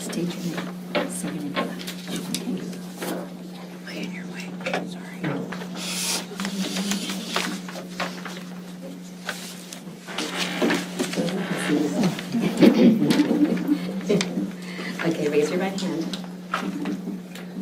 state your name, say your name. okay? Way in your way, sorry. Okay, raise your right hand.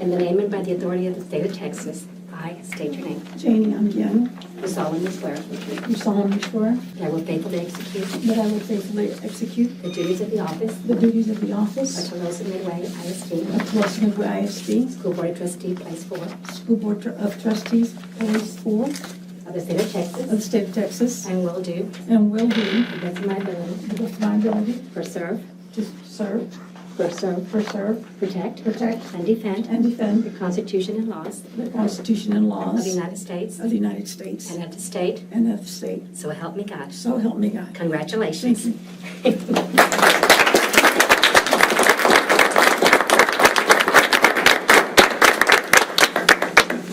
In the name and by the authority of the state of Texas, I state your name. Janie Young, Do solemnly swear do solemnly swear that I will faithfully execute that I will faithfully execute the duties of the office the duties of the of office Tolosa Midway ISD of Tulasanagua ISD School Board Trustee, Place 4 of School Board of Trustees, Phase 4 of the state of the Texas, State of Texas, and will do, and will do, to the best of my ability, to the best of my ability, preserve, to serve, preserve, preserve, protect, protect, and defend and the defend Constitution and laws the Constitution and of the laws United States of the United States and of the state, and of the state. so help me God. So help me God. Congratulations. Thank you.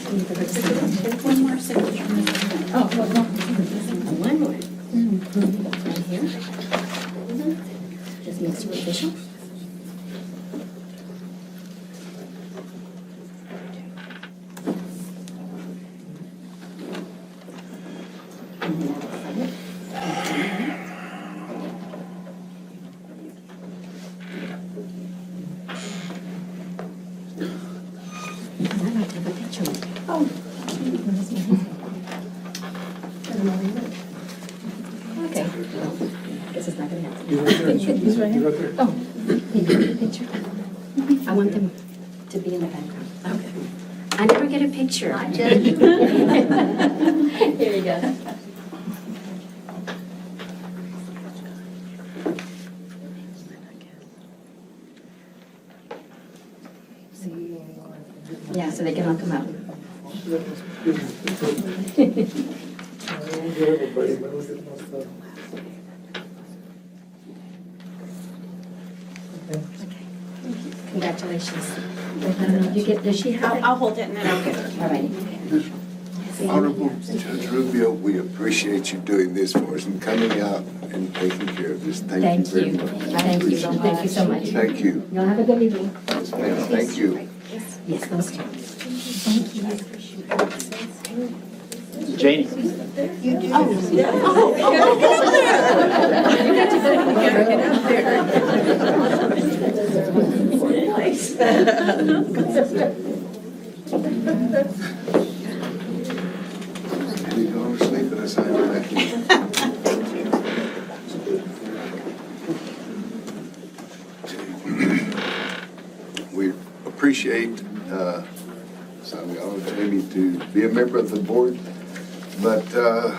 One more signature. Oh, well, well, One more. Right here. Just makes you official. And then I'll sign it. And I'd like to have a picture with you. oh, Okay. This is not gonna happen. He's right there. He's right here. He's right there. Oh, can you get a picture? I want them to be in the background. Okay. I never get a picture. I did. Here we go. Yeah, so they can all come out. Everybody, but look at most of- Okay. Congratulations. I don't know, you get, does she have I'll, it? I'll hold it and then I'll give it. All righty. Honorable Judge Rubio, we appreciate you doing this for us and coming out and taking care of this. Thank Thank you very you. much. Thank you. Thank you so much. Thank you. Y'all have a good evening. Yes, ma'am. Thank you. Yes, those two. Janie. You go to sleep and I sign it back in. We appreciate, uh, Sally Olive, maybe to be a member of the board, but uh,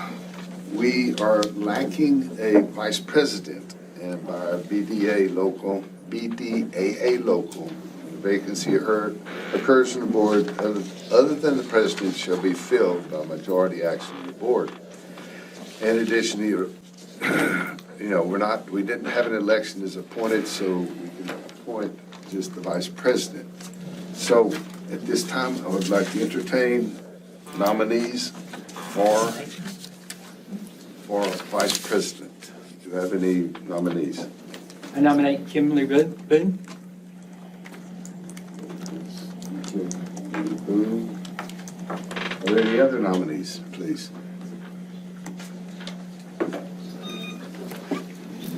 we are lacking a vice president, and by our BDA local, BDAA local, the vacancy occur- occurs in the board, other other than the president shall be filled by majority action of the board. In addition, you you know, we're not, we didn't have an election as appointed, so we can appoint just the vice president. So at this time, I would like to entertain nominees for, for vice president. Do you have any nominees? I nominate Kimberly Boone. Boone. Boone. Are there any other nominees, please?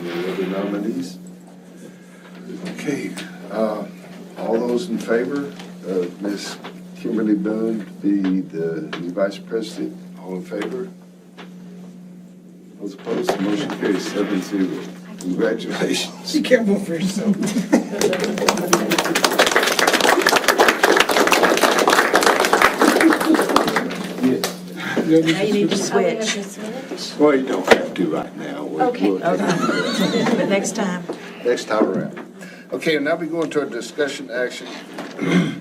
Any other nominees? Okay, uh, all those in favor of Ms. Kimberly Boone to be the new vice president, all in favor? Those opposed, the motion carries seven zero. Congratulations. You can't move for yourself. Now you need to switch, Well, you don't have to right now. We'll- Okay. we'll take it. but next time. Next time around. Okay, and now we go into our discussion action.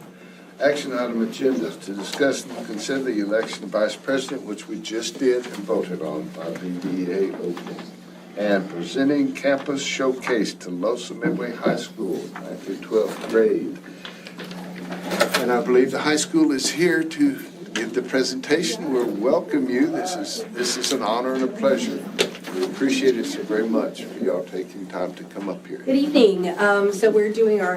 Action item agenda to discuss and consider the election of vice president, which we just did and voted on by BDA Oakland. And presenting campus showcase to Losa Midway High School, ninth through twelfth grade. And I believe the high school is here to give the presentation. We welcome you. This is, this is an honor and a pleasure. We appreciate it so very much for y'all taking time to come up here. Good evening. Um, So we're doing our